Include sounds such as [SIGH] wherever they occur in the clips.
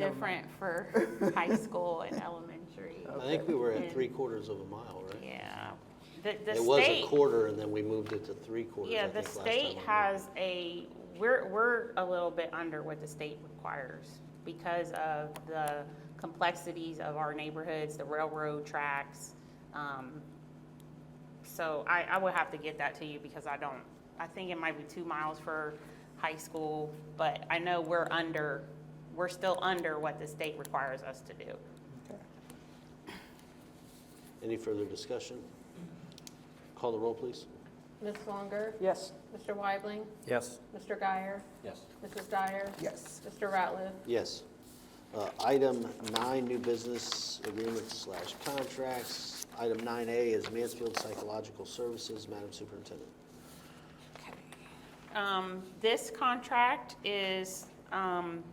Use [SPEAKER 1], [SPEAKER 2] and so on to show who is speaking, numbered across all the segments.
[SPEAKER 1] different for high school and elementary.
[SPEAKER 2] I think we were at
[SPEAKER 1] And-
[SPEAKER 2] three quarters of a mile, right?
[SPEAKER 1] Yeah. The, the
[SPEAKER 2] It was a
[SPEAKER 1] state-
[SPEAKER 2] quarter and then we moved it to three quarters, I
[SPEAKER 1] Yeah,
[SPEAKER 2] think,
[SPEAKER 1] the
[SPEAKER 2] last time.
[SPEAKER 1] state
[SPEAKER 2] we met.
[SPEAKER 1] has a, we're, we're a little bit under what the state requires because of the complexities of our neighborhoods, the railroad tracks. um, So I, I would have to get that to you because I don't, I think it might be two miles for high school, but I know we're under, we're still under what the state requires us to do.
[SPEAKER 2] Any further discussion? Call the roll, please.
[SPEAKER 3] Ms. Swanger?
[SPEAKER 4] Yes.
[SPEAKER 3] Mr. Weibling?
[SPEAKER 5] Yes.
[SPEAKER 3] Mr. Guyer?
[SPEAKER 5] Yes.
[SPEAKER 3] Mrs. Dyer?
[SPEAKER 4] Yes.
[SPEAKER 3] Mr. Ratliff?
[SPEAKER 2] Yes. Uh, Item nine, new business agreements slash contracts. Item nine A is Mansfield Psychological Services, Madam Superintendent.
[SPEAKER 1] Um, This contract is um,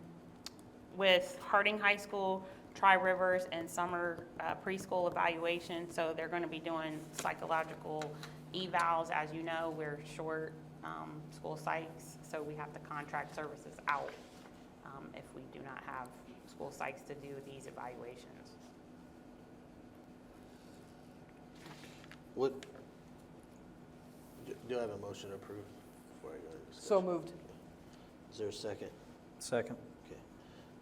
[SPEAKER 1] with Harding High School, Tri Rivers, and Summer uh, Preschool Evaluation. So they're going to be doing psychological evals. As you know, we're short um, school psychs, so we have to contract services out um, if we do not have school psychs to do these evaluations.
[SPEAKER 2] What, do- do I have a motion to approve before I go into discussion?
[SPEAKER 4] So moved.
[SPEAKER 2] Is there a second?
[SPEAKER 5] Second.
[SPEAKER 2] Okay.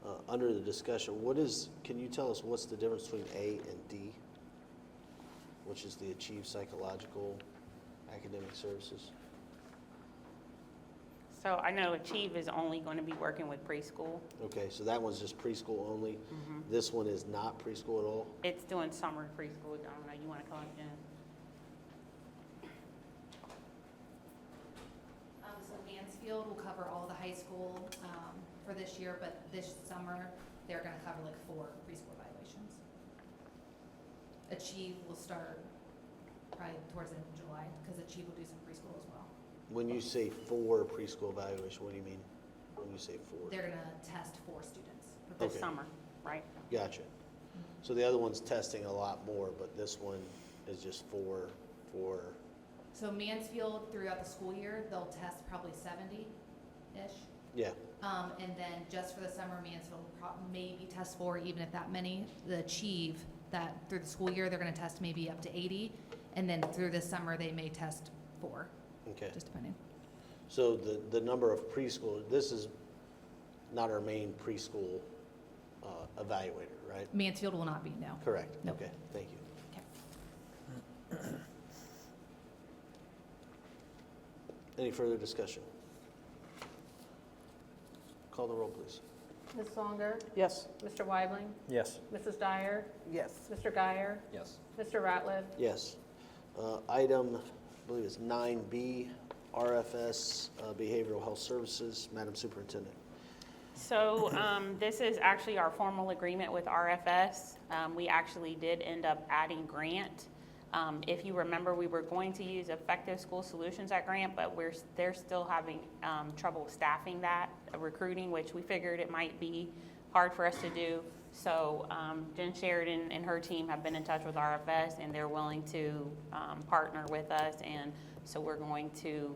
[SPEAKER 2] Uh, Under the discussion, what is, can you tell us what's the difference between A and D? Which is the Achieve Psychological Academic Services?
[SPEAKER 1] So I know Achieve is only going to be working with preschool.
[SPEAKER 2] Okay, so that one's just preschool only. This one is not preschool at all?
[SPEAKER 1] It's doing summer preschool. I don't know, you want to call it, Jen?
[SPEAKER 6] Um, so Mansfield will cover all the high school, um, for this year, but this summer, they're gonna cover like four preschool evaluations. Achieve will start probably towards the end of July, because Achieve will do some preschool as well.
[SPEAKER 2] When you say for preschool evaluation, what do you mean? When you say for?
[SPEAKER 6] They're gonna test four students.
[SPEAKER 1] this
[SPEAKER 2] Okay.
[SPEAKER 1] summer, right?
[SPEAKER 2] Gotcha. So the other one's testing a lot more, but this one is just for, for,
[SPEAKER 6] So Mansfield throughout the school year, they'll test probably seventy-ish.
[SPEAKER 2] yeah,
[SPEAKER 6] Um, and then just for the summer, Mansfield will prob- maybe test four, even if that many, the achieve that through the school year, they're gonna test maybe up to eighty. And then through the summer, they may test four,
[SPEAKER 2] okay.
[SPEAKER 6] just depending.
[SPEAKER 2] So the, the number of preschool, this is not our main preschool uh, evaluator, right?
[SPEAKER 6] Mansfield will not be, no.
[SPEAKER 2] Correct,
[SPEAKER 6] No.
[SPEAKER 2] okay, thank you.
[SPEAKER 6] Okay.
[SPEAKER 2] [CLEARS THROAT] Any further discussion? Call the roll, please.
[SPEAKER 3] Ms. Swanger?
[SPEAKER 4] Yes.
[SPEAKER 3] Mr. Weibling?
[SPEAKER 5] Yes.
[SPEAKER 3] Mrs. Dyer?
[SPEAKER 4] Yes.
[SPEAKER 3] Mr. Guyer?
[SPEAKER 5] Yes.
[SPEAKER 3] Mr. Ratliff?
[SPEAKER 2] Yes. Uh, Item, I believe it's 9B, RFS uh, Behavioral Health Services, Madam Superintendent.
[SPEAKER 1] So um, this is actually our formal agreement with RFS. Um, We actually did end up adding grant. Um, If you remember, we were going to use Effective School Solutions at grant, but we're, they're still having um, trouble staffing that, uh, recruiting, which we figured it might be hard for us to do. So um, Jen Sheridan and her team have been in touch with RFS, and they're willing to um, partner with us. And so we're going to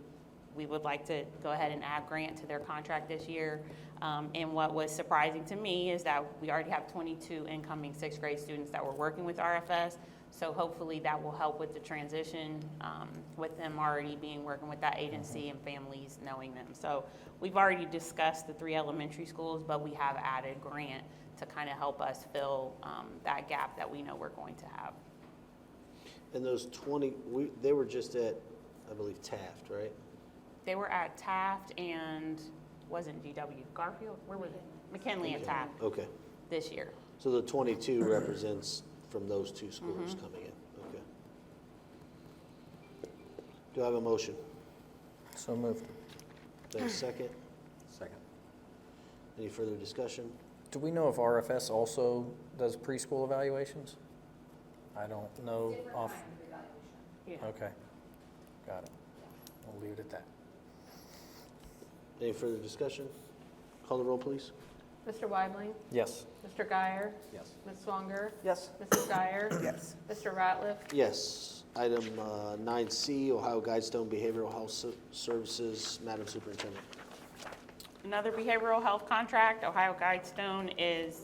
[SPEAKER 1] we would like to go ahead and add grant to their contract this year. Um, And what was surprising to me is that we already have 22 incoming sixth grade students that were working with RFS. So hopefully that will help with the transition, um, with them already being, working with that agency and families knowing them. So we've already discussed the three elementary schools, but we have added grant to kind of help us fill um, that gap that we know we're going to have.
[SPEAKER 2] And those 20, we- they were just at, I believe, Taft, right?
[SPEAKER 1] They were at Taft and, wasn't GW Garfield? Where was it? McKinley and Taft.
[SPEAKER 2] Okay.
[SPEAKER 1] this year.
[SPEAKER 2] So the 22 represents from those two schools coming in, okay. Do I have a motion?
[SPEAKER 5] So moved.
[SPEAKER 2] Do I have a second?
[SPEAKER 5] Second.
[SPEAKER 2] Any further discussion?
[SPEAKER 5] Do we know if RFS also does preschool evaluations? I don't know
[SPEAKER 6] Different
[SPEAKER 5] off.
[SPEAKER 6] kind of evaluation.
[SPEAKER 5] Okay. Got it. We'll leave it at that.
[SPEAKER 2] Any further discussion? Call the roll, please.
[SPEAKER 3] Mr. Weibling?
[SPEAKER 5] Yes.
[SPEAKER 3] Mr. Guyer?
[SPEAKER 5] Yes.
[SPEAKER 3] Ms. Swanger?
[SPEAKER 4] Yes.
[SPEAKER 3] Mrs. Dyer?
[SPEAKER 4] Yes.
[SPEAKER 3] Mr. Ratliff?
[SPEAKER 2] Yes. Item uh, 9C, Ohio Guidestone Behavioral Health Ser- Services, Madam Superintendent.
[SPEAKER 1] Another behavioral health contract, Ohio Guidestone is